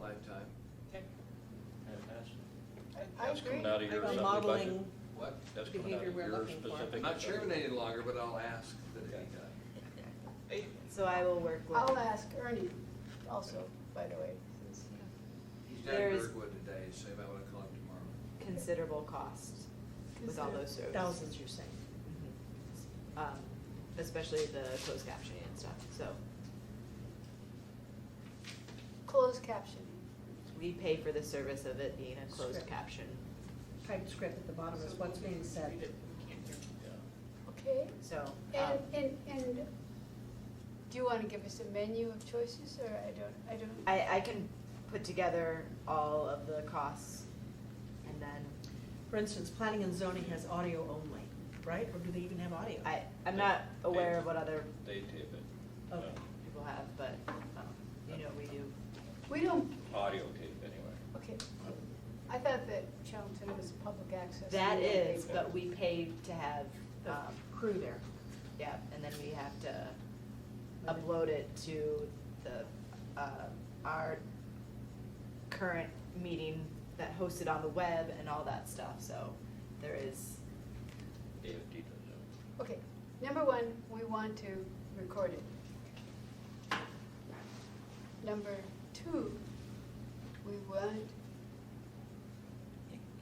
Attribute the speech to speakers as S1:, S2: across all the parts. S1: lifetime.
S2: Okay.
S3: And that's,
S4: I
S3: that's
S4: agree.
S3: coming out of your
S2: Like a
S3: assembly budget?
S2: modeling,
S1: What?
S3: That's coming out
S2: behavior
S3: of
S2: we're
S3: your
S2: looking for.
S3: specific.
S1: I'm not chairman
S3: assembly
S1: any longer, but I'll ask that uh, it be done.
S5: So I will work with.
S4: I'll ask Ernie also, by the way. since-
S1: He's down
S5: There
S1: in
S5: is-
S1: Birdwood today, so you might wanna call him tomorrow.
S5: Considerable cost with all those services.
S4: Thousands, you're saying.
S5: Um, especially the closed captioning and stuff, so
S4: Closed captioning,
S5: we pay for the service of it being a closed
S6: Script.
S5: caption.
S6: typed script at the bottom is what's being
S2: Read it,
S6: said.
S2: we can't hear.
S4: okay?
S5: So, um,
S4: And, and, and do you want to give us a menu of choices, or I don't, I don't?
S5: I, I can put together all of the costs and then
S6: For instance, planning and zoning has audio only, right? Or do they even have audio?
S5: I, I'm not aware of what other
S3: They tape it.
S6: Okay.
S5: people have, but, um, you know, we do.
S4: We don't,
S3: Uh, Audio tape, anyway.
S4: okay. I thought that Chelmsford was public access.
S5: That
S4: We don't
S5: is,
S4: pay for
S5: but we pay to have,
S6: The
S5: um,
S6: crew there.
S5: yeah, and then we have to upload it to the, uh, our current meeting that hosted on the web and all that stuff, so there is,
S3: David Tito does it.
S4: it. Okay, number one, we want to record it. Number two, we want,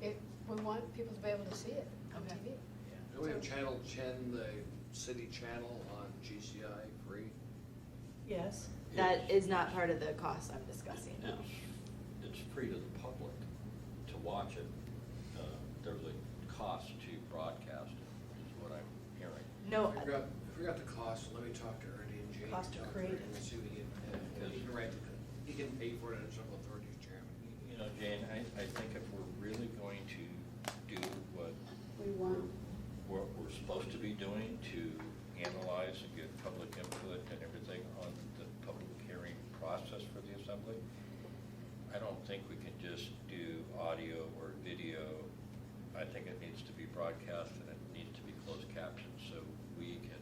S4: if, we want people to be able to see it on
S5: Okay.
S4: TV.
S1: Do we have Channel 10, the city channel on GCI free?
S6: Yes.
S5: that
S3: It's-
S5: is not part of the cost I'm discussing.
S3: It's, it's free to the public to watch it. Uh, There's a cost to broadcast it, is what I'm hearing.
S5: No,
S1: Figure out, figure out the cost, let me talk to Ernie and Jane.
S6: Cost to
S1: talk
S6: create
S1: Ernie And see what he can, uh, he can write, the- he can pay for it in some authority, chairman.
S3: You know, Jane, I, I think if we're really going to do what
S4: We want.
S3: what we're supposed to be doing to analyze and get public input and everything on the public hearing process for the assembly. I don't think we can just do audio or video. I think it needs to be broadcast and it needs to be closed captioned so we can,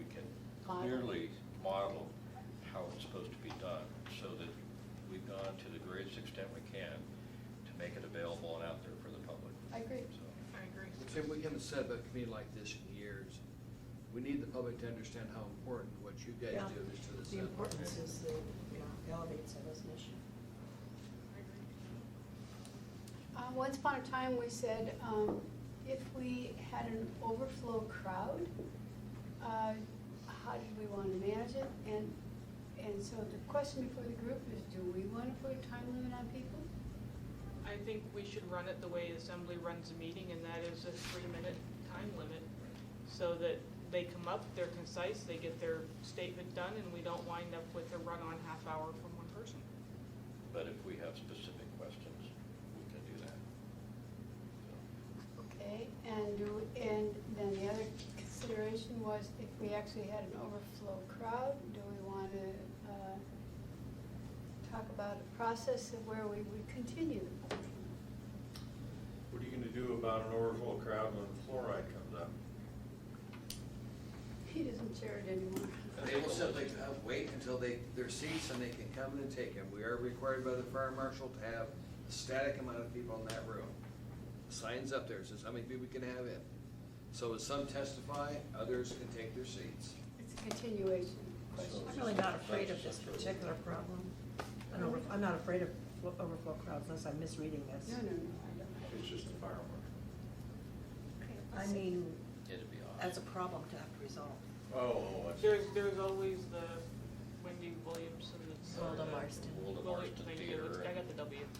S3: we can
S4: Model.
S3: clearly model how it's supposed to be done so that we've gone to the greatest extent we can to make it available and out there for the public.
S4: I agree.
S3: So.
S2: I agree.
S1: Tim, we haven't said about a committee like this in years. We need the public to understand how important what you guys
S6: Yeah.
S1: do is to the
S6: The
S1: city.
S6: importance is, the, you know, elevates it as an issue.
S4: Uh, Once upon a time, we said um, if we had an overflow crowd, uh, how did we want to manage it? And, and so the question before the group is, do we want to put a time limit on people?
S2: I think we should run it the way assembly runs a meeting, and that is a three-minute time limit, so that they come up, they're concise, they get their statement done, and we don't wind up with a run-on half hour from one person.
S3: But if we have specific questions, we can do that.
S4: Okay, and, do- and then the other consideration was if we actually had an overflow crowd, do we want to uh, talk about a process of where we would continue the public hearing?
S7: What are you gonna do about an overfull crowd when fluoride comes up?
S4: He doesn't chair it anymore.
S1: They will simply uh, wait until they, their seats and they can come in and take them. We are required by the fire marshal to have a static amount of people in that room. Signs up there says how many people we can have in. So as some testify, others can take their seats.
S4: It's a continuation question.
S6: I'm really not afraid of this particular problem. An over- I'm not afraid of flo- overflow crowds unless I'm misreading this.
S4: No, no, no, I don't.
S7: It's just a firework.
S6: I mean,
S3: It'd be awesome.
S6: that's a problem to have to resolve.
S7: Oh, I see.
S2: There's, there's always the Wendy Williamson that's.
S5: Wilda Marston.
S3: Wilda
S2: Willie-
S3: Marston
S2: thank you,
S3: Theater.
S2: I got the W.
S3: and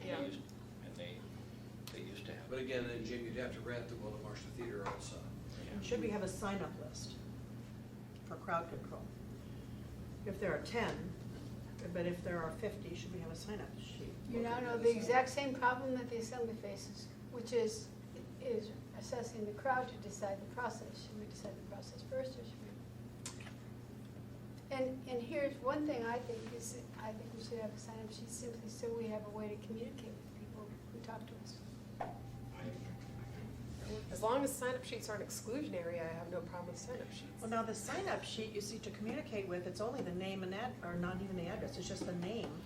S3: they
S2: Yeah.
S3: used- And they, they used to have.
S1: But again, then Jim, you'd have to rent the Willow Marshall Theater also.
S6: Should we have a sign-up list for crowd control? If there are ten, but if there are fifty, should we have a sign-up sheet?
S4: You now know the exact same problem that the assembly faces, which is, is assessing the crowd to decide the process. Should we decide the process first, or should we? And, and here's one thing I think is, I think we should have a sign-up sheet simply so we have a way to communicate with people who talk to us.
S8: As long as sign-up sheets aren't exclusionary, I have no problem with sign-up
S6: Well,
S8: sheets.
S6: now the sign-up sheet you see to communicate with, it's only the name and ad, or not even the address, it's just the name